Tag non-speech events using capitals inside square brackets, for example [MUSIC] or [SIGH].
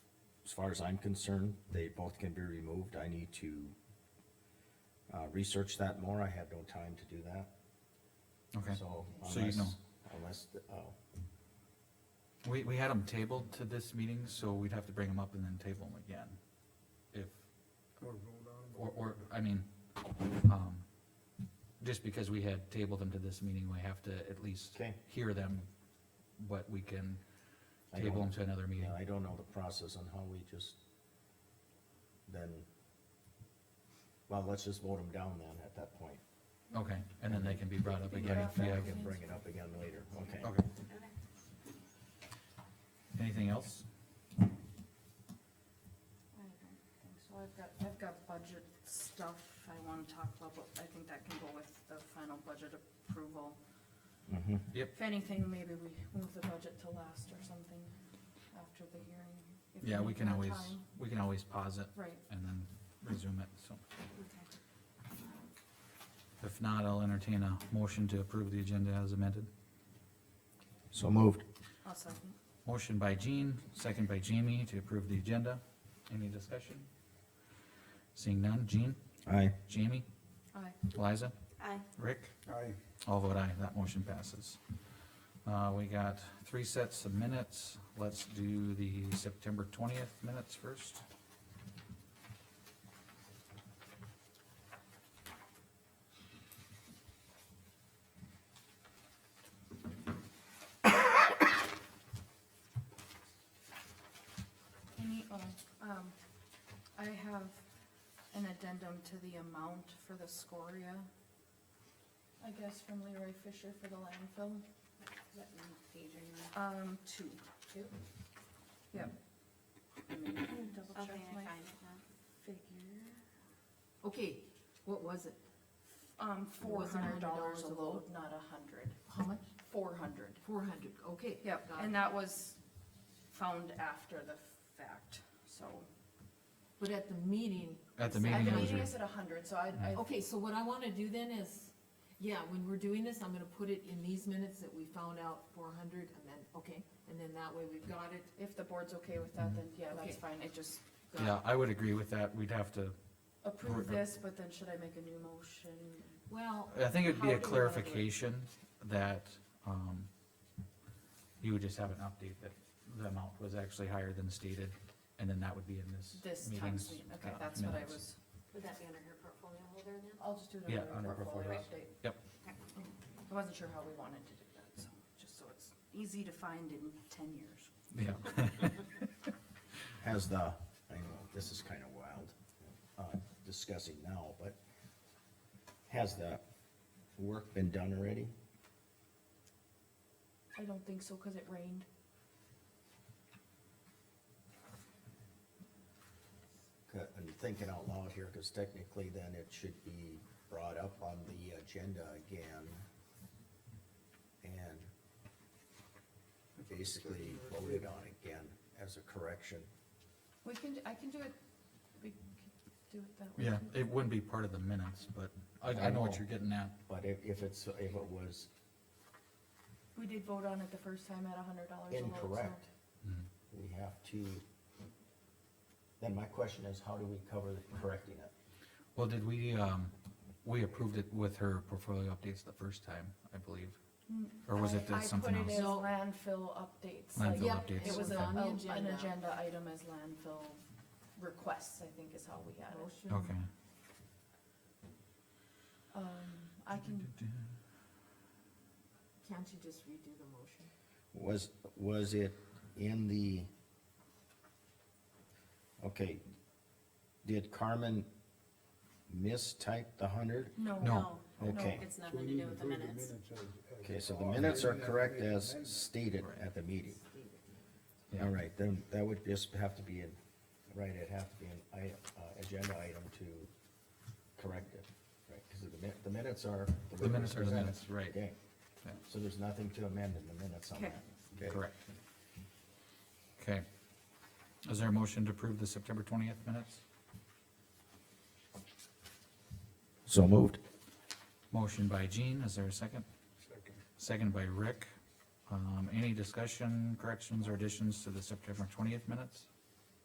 as far as I'm concerned, they both can be removed. I need to uh, research that more. I had no time to do that. Okay, So So you unless, know. unless, oh, we, we had them tabled to this meeting, so we'd have to bring them up and then table them again. If, Or vote on or, or, I mean, um, just because we had tabled them to this meeting, we have to at least okay. hear them, but we can I don't- table them to another meeting. Yeah, I don't know the process on how we just then, well, let's just vote them down then at that point. Okay, and then they can be brought up But again if we I have, can bring it up again later, okay. okay. Anything else? I don't think So I've got, I've got budget stuff I wanna talk about, but I think that can go with the final budget approval. Mhm. If anything, maybe we move the budget to last or something after the hearing. if Yeah, we need can more always, time. we can always pause it Right, and then resume it, so. okay. If not, I'll entertain a motion to approve the agenda as amended. So moved. I'll second. Motion by Jean, second by Jamie to approve the agenda. Any discussion? Seeing none, Jean, Aye. Jamie, Aye. Liza, Aye. Rick, it. Aye. all vote aye, that motion passes. Uh, we got three sets of minutes. Let's do the September twentieth minutes first. Any, oh, um, I have an addendum to the amount for the scoria, I guess from Leroy Fisher for the landfill. What page are you on? Um, two. Two? Yep. Let me Double I'll check my find it now. figure. Okay, what was it? Um, four Was it hundred dollars $100 a a load, load? not a hundred. How much? Four hundred. Four hundred, okay. Yep, got and it. that was found after the fact, so. But at the meeting, At the At meeting, the it was meeting re- is at a hundred, so I, I, okay, so what I wanna do then is, yeah, when we're doing this, I'm gonna put it in these minutes that we found out four hundred and then, okay, and then that way we've got it. if the board's okay with that, then yeah, that's Okay. fine, it just got yeah, it. I would agree with that. We'd have to, approve Or- or- this, but then should I make a new motion? Well, I think it'd How be do a we wanna do it? clarification that, um, you would just have an update that the amount was actually higher than stated, and then that would be in this This time's, meeting's. meeting? okay, uh, that's what I minutes. was, Would that be under her portfolio holder then? I'll just do it Yeah, under under portfolio portfolios. update. Yep. I wasn't sure how we wanted to do that, so, just so it's easy to find in ten years. Yeah, [LAUGHS] Has the, I know, this is kind of wild, uh, discussing now, but has the work been done already? I don't think so, cause it rained. i I'm thinking out loud here, because technically then it should be brought up on the agenda again. And basically voted on again as a correction. We can, I can do it, we can do it that way. yeah, it wouldn't be part of the minutes, but I, I know what you're getting at. But if, if it's, if it was We did vote on it the first time at a hundred dollars Oh, a load, so. incorrect, we have to, then my question is, how do we cover correcting it? Well, did we, um, we approved it with her portfolio updates the first time, I believe, or was it Mm. I- that something I put else? it as No. landfill updates, like, Landfill Yep, updates, it was a, okay. on the a- Oh, an agenda. agenda item as landfill requests, I think is how we had it. Motion. Okay. Um, I can, Can't you just redo the motion? Was, was it in the, okay, did Carmen mistype the hundred? no. No. Okay, It's So nothing we to need do with the approve minutes. as- as- okay, so Oh, the minutes are correct as stated Right. at the meeting. Yeah. All right, then that would just have to be in, right, it'd have to be an i- uh, agenda item to correct it, right? Cause the min- the minutes are. way The minutes are the presented. minutes, right. Okay, Yeah. so there's nothing to amend in the minutes on Okay. that. Okay. Correct. Okay. Is there a motion to approve the September twentieth minutes? So moved. Motion by Jean, is there a second? Second. Second by Rick. Um, any discussion, corrections, or additions to the September twentieth minutes?